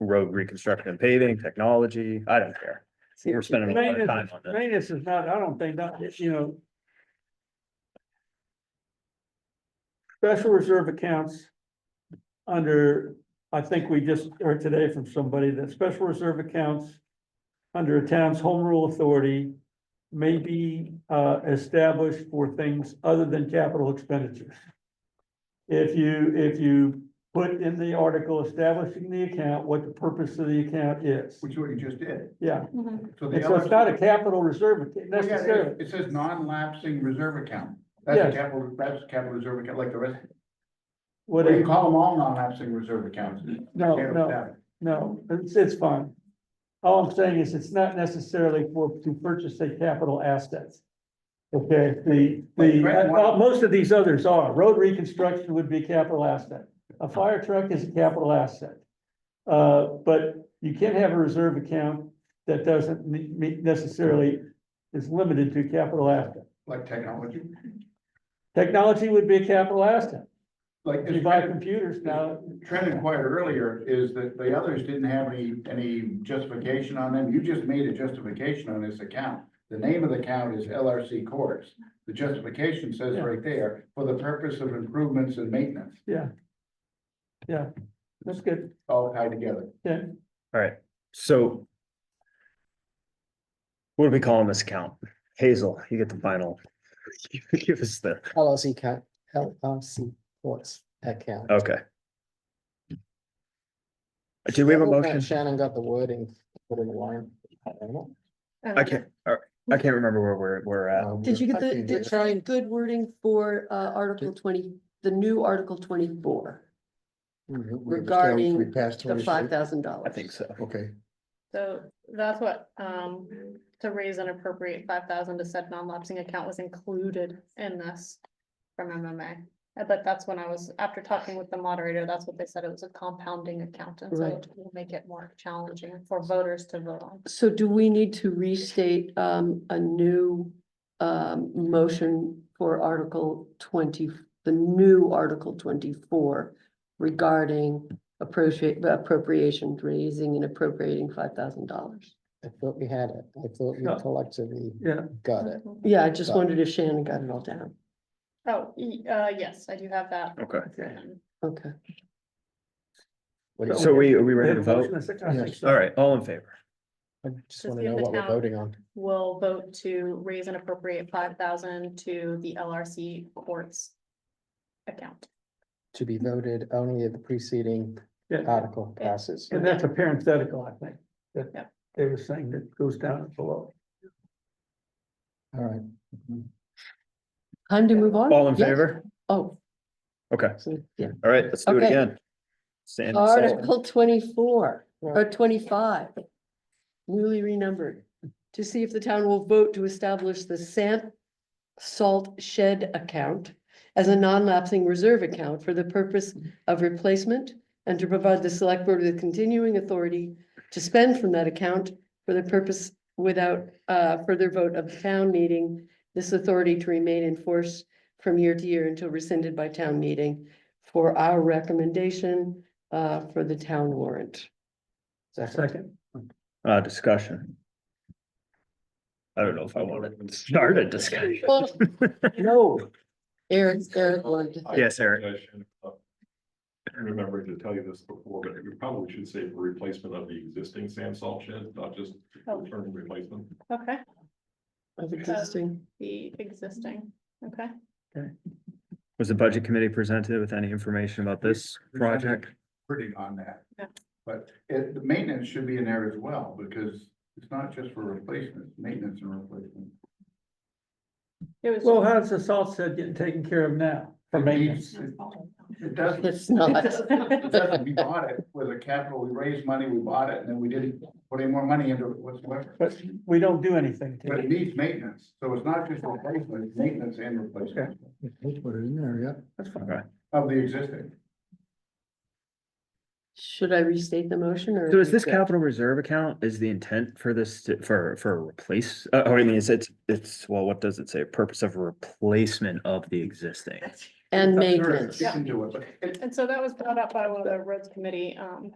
road reconstruction and paving, technology, I don't care. We're spending a lot of time on this. Maintenance is not, I don't think that, you know. Special reserve accounts. Under, I think we just heard today from somebody that special reserve accounts. Under a town's home rule authority. May be uh established for things other than capital expenditures. If you, if you put in the article establishing the account, what the purpose of the account is, which is what you just did. yeah. So the And so other- it's not a capital reserve ac- Well, yeah, it- necessarily. It says non-lapsing reserve account. That's a Yes. capital, that's a capital reserve account, like the rest. What, But you it- call them all non-lapsing reserve accounts. no, Yeah, no, yeah. no, it's, it's fine. All I'm saying is it's not necessarily for, to purchase a capital asset. Okay, the, Wait, the, Grant, uh, what- uh, most of these others are. Road reconstruction would be a capital asset. A fire truck is a capital asset. Uh, but you can't have a reserve account that doesn't ne- ne- necessarily is limited to capital asset. Like technology, Technology would be a capital asset. like. If you buy computers now, Trent inquired earlier, is that the others didn't have any, any justification on them, you just made a justification on this account. The name of the account is LRC Corps, the justification says Yeah. right there, for the purpose of improvements and maintenance, Yeah. Yeah, that's good. all tied together. All right, so. What are we calling this account? Hazel, you get the final. Give us the, LLC account, LLC courts account. okay. Do we have a Double check motion? Shannon got the wording, put in the line. I don't Uh, know. I can't, all right, I can't remember where we're, we're at. Um, Did you get I the, can did do you it. get good wording for uh Article twenty, the new Article twenty-four, We- we- we regarding passed the 26. five thousand dollars? I think so. Okay, So that's what, um, to raise and appropriate five thousand to said non-lapsing account was included in this from MMA. Uh, But that's when I was, after talking with the moderator, that's what they said, it was a compounding account, and so Right. it will make it more challenging for voters to vote on. So do we need to restate um a new um motion for Article twenty, the new Article twenty-four regarding appropriate appropriation, raising and appropriating five thousand dollars? I thought we had it. I thought we No. collectively Yeah. got it. Yeah, I just Got it. wondered if Shannon got it all down. Mm-hmm. Oh, e- uh, yes, I do have that. Okay, Okay, Um, okay. What do you- so we, are we ready Ready to vote? All right, all in favor? I just Just want to give know the what we're town- voting on. Will vote to raise and appropriate five thousand to the LRC courts account. To be voted only if the preceding Yeah, article Yeah. passes. and that's a parenthetical, I think, Yeah. that they were saying that goes down below. All right. Time to move on? All in Yeah. favor? Oh, Okay, so, yeah. all right, let's do it Okay. again. Stand- Article twenty-four or Right. twenty-five. Newly renumbered, to see if the town will vote to establish the sand salt shed account as a non-lapsing reserve account for the purpose of replacement and to provide the select board with continuing authority to spend from that account for the purpose without uh further vote of the town meeting. This authority to remain in force from year to year until rescinded by town meeting for our recommendation uh for the town warrant. Second, Uh, discussion. I don't know if I want to start a discussion. No. Eric, Eric wanted, I- Yes, Eric. I should, uh, I remember to tell you this before, but you probably should say for replacement of the existing sand salt shed, not just Oh. return replacement. Okay, of existing. the existing, okay. Was the budget committee presented with any information about this project? Pretty on that. Yeah. But it, the maintenance should be in there as well, because it's not just for replacement, maintenance and replacement. It was. well, how's the salt shed getting taken care of now for maintenance? It it doesn't, It's not. it doesn't, we bought it with a capital, we raised money, we bought it, and then we didn't put any more money into it whatsoever. But we don't do anything to But it it. needs maintenance, so it's not just replacement, it's maintenance and replacement Put it in there, yeah. That's fine. Okay. of the existing. Should I restate the motion or? So is this Okay. capital reserve account, is the intent for this, to- for, for a replace, uh, oh, I mean, it's, it's, it's, well, what does it say? Purpose of replacement of the existing. And Sure, maintenance. You can do it, but it, And so that was brought up by one of the roads committee, um,